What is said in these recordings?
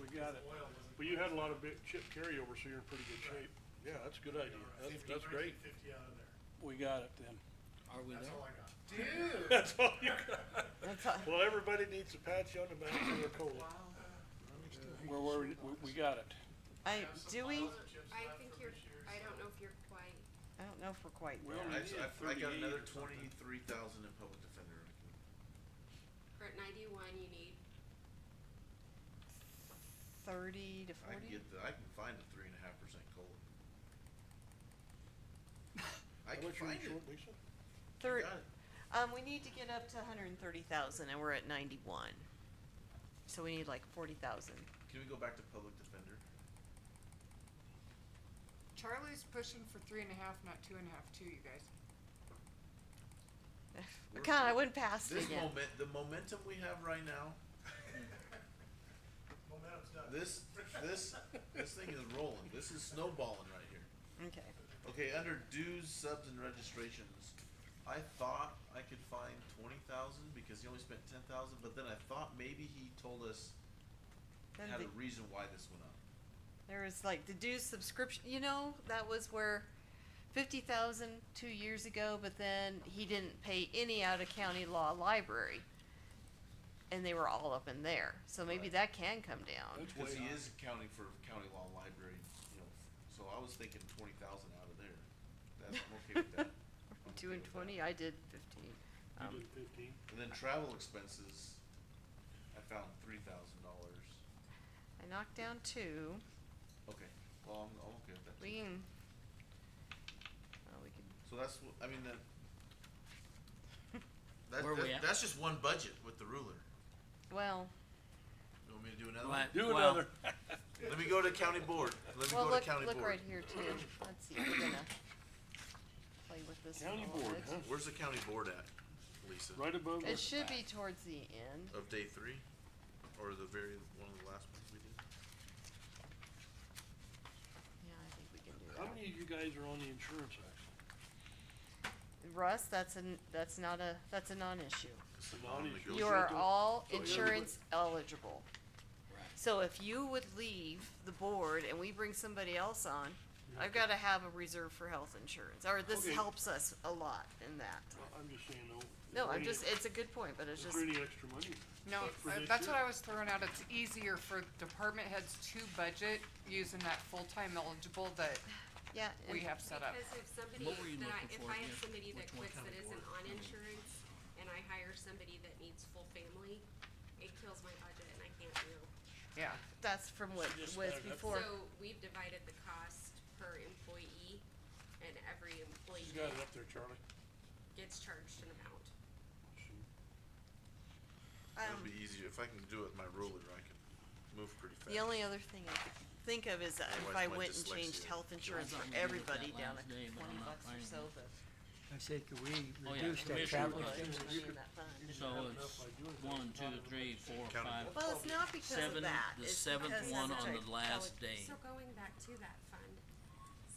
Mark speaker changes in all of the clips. Speaker 1: we got it. But you had a lot of big chip carryover, so you're in pretty good shape. Yeah, that's a good idea. That's,
Speaker 2: Fifty,
Speaker 1: that's great.
Speaker 2: fifty out of there.
Speaker 1: We got it then.
Speaker 3: Are we
Speaker 2: That's
Speaker 3: there?
Speaker 2: all I got. Dude.
Speaker 1: That's all you got.
Speaker 4: That's all.
Speaker 1: Well, everybody needs a pat you on the back for their cola. We're, we we, we got it.
Speaker 4: I, do we?
Speaker 5: I think you're, I don't know if you're quite,
Speaker 4: I don't know if we're quite
Speaker 1: Well,
Speaker 4: there.
Speaker 1: we
Speaker 6: I,
Speaker 1: need
Speaker 6: I, I
Speaker 1: 38
Speaker 6: got
Speaker 1: or
Speaker 6: another
Speaker 1: something.
Speaker 6: twenty-three thousand in public defender.
Speaker 5: for at ninety-one, you need,
Speaker 4: Thirty to
Speaker 6: I can
Speaker 4: forty?
Speaker 6: get the, I can find the three and a half percent cola.
Speaker 1: How
Speaker 6: I can
Speaker 1: much are you
Speaker 6: find it.
Speaker 1: short, Lisa?
Speaker 4: Thir-
Speaker 6: Got it.
Speaker 4: um, we need to get up to hundred and thirty thousand and we're at ninety-one. So we need like forty thousand.
Speaker 6: Can we go back to public defender?
Speaker 7: Charlie's pushing for three and a half, not two and a half, too, you guys.
Speaker 6: We're-
Speaker 4: God, I wouldn't pass it
Speaker 6: This
Speaker 4: again.
Speaker 6: moment, the momentum we have right now,
Speaker 2: Momentum's done.
Speaker 6: this, this, this thing is rolling. This is snowballing right here.
Speaker 4: Okay.
Speaker 6: Okay, under dues, subs, and registrations, I thought I could find twenty thousand because he only spent ten thousand. But then I thought maybe he told us
Speaker 4: Then
Speaker 6: had
Speaker 4: the,
Speaker 6: a reason why this went up.
Speaker 4: there was like the dues subscription, you know, that was where fifty thousand two years ago, but then he didn't pay any out of county law library. And they were all up in there, so maybe
Speaker 6: Right.
Speaker 4: that can come down.
Speaker 1: That's
Speaker 6: Cause
Speaker 1: way
Speaker 6: he
Speaker 1: high.
Speaker 6: is accounting for county law library, you know, so I was thinking twenty thousand out of there. That's, I'm okay with that. I'm
Speaker 4: Two
Speaker 6: okay
Speaker 4: and
Speaker 6: with that.
Speaker 4: twenty, I did fifteen.
Speaker 1: You
Speaker 4: Um,
Speaker 1: did fifteen.
Speaker 6: And then travel expenses, I found three thousand dollars.
Speaker 4: I knocked down two.
Speaker 6: Okay, well, I'm, I'm okay with that.
Speaker 4: We
Speaker 6: too.
Speaker 4: can. Well, we could.
Speaker 6: So that's, wh- I mean, that. That,
Speaker 3: Where we
Speaker 6: that-
Speaker 3: at?
Speaker 6: that's just one budget with the ruler.
Speaker 4: Well,
Speaker 6: You want me to do another one?
Speaker 3: What?
Speaker 1: Do
Speaker 3: Well-
Speaker 1: another.
Speaker 6: Let me go to county board. Let me
Speaker 4: well,
Speaker 6: go to
Speaker 4: look,
Speaker 6: county
Speaker 4: look
Speaker 6: board.
Speaker 4: right here too. Let's see. We're gonna play with this one
Speaker 1: County
Speaker 4: a little
Speaker 1: board,
Speaker 4: bit.
Speaker 1: huh?
Speaker 6: Where's the county board at, Lisa?
Speaker 1: Right above
Speaker 4: It
Speaker 1: us.
Speaker 4: should be towards the end.
Speaker 6: Of day three? Or the very, one of the last ones we did?
Speaker 4: Yeah, I think we can do
Speaker 1: How
Speaker 4: that.
Speaker 1: many of you guys are on the insurance act?
Speaker 4: Russ, that's an that's not a that's a non-issue.
Speaker 6: It's
Speaker 1: The
Speaker 6: a
Speaker 1: non-issue.
Speaker 6: non-negotiable.
Speaker 4: You are
Speaker 1: to-
Speaker 6: Oh,
Speaker 4: all
Speaker 1: so everybody-
Speaker 4: insurance eligible.
Speaker 3: Right.
Speaker 4: So if you would leave the board and we bring somebody else on, I've
Speaker 1: Okay.
Speaker 4: got to have a reserve for health insurance, or this
Speaker 1: Okay.
Speaker 4: helps us a lot in that.
Speaker 1: Well, I'm just saying though.
Speaker 4: No,
Speaker 1: is there
Speaker 4: I'm
Speaker 1: any-
Speaker 4: just, it's a good point, but it's
Speaker 1: Is
Speaker 4: just,
Speaker 1: there any extra money?
Speaker 7: No,
Speaker 1: For
Speaker 7: uh,
Speaker 1: this
Speaker 7: that's what
Speaker 1: year?
Speaker 7: I was throwing out. It's easier for department heads to budget using that full-time eligible that
Speaker 4: yeah.
Speaker 7: we
Speaker 4: and-
Speaker 7: have set up.
Speaker 5: because if somebody
Speaker 3: What were you
Speaker 5: that I,
Speaker 3: looking
Speaker 5: if
Speaker 3: for
Speaker 5: I have
Speaker 3: again?
Speaker 5: somebody that
Speaker 3: Which one
Speaker 5: quits
Speaker 3: kind
Speaker 5: that
Speaker 3: of
Speaker 5: isn't
Speaker 3: board?
Speaker 5: on
Speaker 3: I mean-
Speaker 5: insurance, and I hire somebody that needs full family, it kills my budget and I can't do.
Speaker 7: Yeah.
Speaker 4: That's from what
Speaker 1: So just
Speaker 4: was
Speaker 1: add it up.
Speaker 4: before.
Speaker 5: So we've divided the cost per employee, and every employee
Speaker 1: She's got it up there, Charlie.
Speaker 5: gets charged an amount.
Speaker 4: Um,
Speaker 6: It'll be easier, if I can do it with my ruler, I can move pretty fast.
Speaker 4: the only other thing I could think of is that if
Speaker 6: Otherwise
Speaker 4: I
Speaker 6: my
Speaker 4: went and changed
Speaker 6: dyslexia
Speaker 4: health insurance
Speaker 3: thought
Speaker 4: for
Speaker 3: we did it
Speaker 4: everybody
Speaker 3: that
Speaker 4: down
Speaker 3: last
Speaker 4: at
Speaker 3: day, but
Speaker 4: twenty
Speaker 3: I'm not
Speaker 4: bucks or
Speaker 3: finding
Speaker 4: so,
Speaker 3: it.
Speaker 4: the.
Speaker 8: I said, could we
Speaker 3: Oh, yeah,
Speaker 8: reduce that
Speaker 3: commissioner
Speaker 8: travel
Speaker 3: budget.
Speaker 8: expense?
Speaker 4: It was in that fund.
Speaker 3: So it's one, two, three, four,
Speaker 6: Count 'em
Speaker 3: five,
Speaker 6: all.
Speaker 4: Well, it's not because
Speaker 3: seven,
Speaker 4: of that.
Speaker 3: the
Speaker 4: It's
Speaker 3: seventh
Speaker 4: because
Speaker 3: one on
Speaker 4: of the-
Speaker 3: the last day,
Speaker 5: So going back to that fund,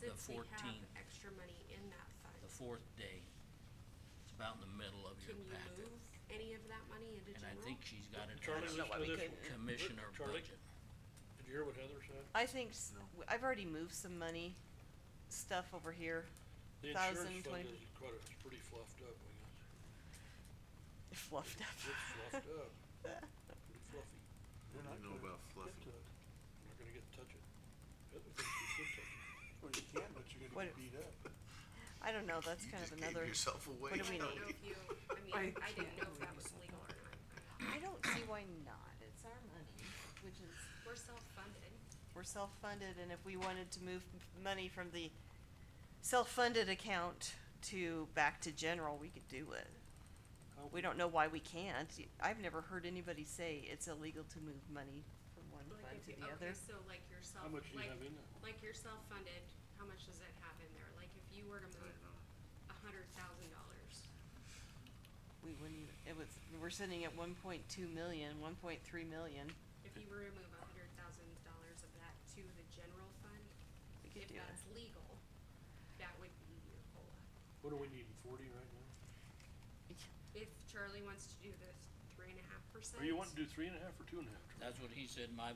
Speaker 5: since we have
Speaker 3: 14.
Speaker 5: extra money in that fund,
Speaker 3: the fourth day. It's about in the middle of your
Speaker 5: can you
Speaker 3: packet,
Speaker 5: move any of that money into
Speaker 3: and
Speaker 5: general?
Speaker 3: I think she's got it
Speaker 1: Charlie,
Speaker 3: as
Speaker 1: listen to
Speaker 4: we
Speaker 1: this
Speaker 4: couldn't.
Speaker 1: one.
Speaker 3: commissioner
Speaker 1: Charlie,
Speaker 3: budget.
Speaker 1: Did you hear what Heather said?
Speaker 4: I think, s- w- I've already moved some money, stuff over here,
Speaker 1: The
Speaker 4: Thousand,
Speaker 1: insurance fund
Speaker 4: twenty-
Speaker 1: is quite, a- it's pretty fluffed up, I guess.
Speaker 4: fluffed
Speaker 1: It's
Speaker 4: up.
Speaker 1: fluffed up, pretty fluffy. We're
Speaker 6: I
Speaker 1: not
Speaker 6: don't know
Speaker 1: gonna
Speaker 6: about
Speaker 1: get
Speaker 6: fluffy.
Speaker 1: to it. We're not gonna get to touch it. Heather thinks you should touch it. Well, you can, but you're
Speaker 4: What-
Speaker 1: beat up.
Speaker 4: I don't know, that's kind of another,
Speaker 6: yourself away.
Speaker 4: do we
Speaker 5: I
Speaker 4: need?
Speaker 5: don't know if you, I mean,
Speaker 7: I
Speaker 5: I didn't
Speaker 7: can't
Speaker 5: know if that
Speaker 7: believe
Speaker 5: was legal or not.
Speaker 4: I don't see why not. It's our money, which is
Speaker 5: We're self-funded.
Speaker 4: we're self-funded, and if we wanted to move m- money from the self-funded account to, back to general, we could do it. We don't know why we can't. Y- I've never heard anybody say it's illegal to move money from one fund to the other.
Speaker 5: Oh, Okay, so like yourself,
Speaker 1: How much do you
Speaker 5: like,
Speaker 1: have in there?
Speaker 5: like you're self-funded, how much does that have in there? Like if you were to move a hundred thousand dollars,
Speaker 4: We wouldn't, even- it was, we're sitting at one point two million, one point three million,
Speaker 5: if you were to move a hundred thousand dollars of that to the general fund,
Speaker 4: we
Speaker 5: if
Speaker 4: could do
Speaker 5: that's
Speaker 4: it.
Speaker 5: legal, that would be your COLA.
Speaker 1: What do we need, forty right now?
Speaker 5: If Charlie wants to do this three and a half percent.
Speaker 1: Or you want to do three and a half or two and a half, Charlie?
Speaker 3: That's what he said, my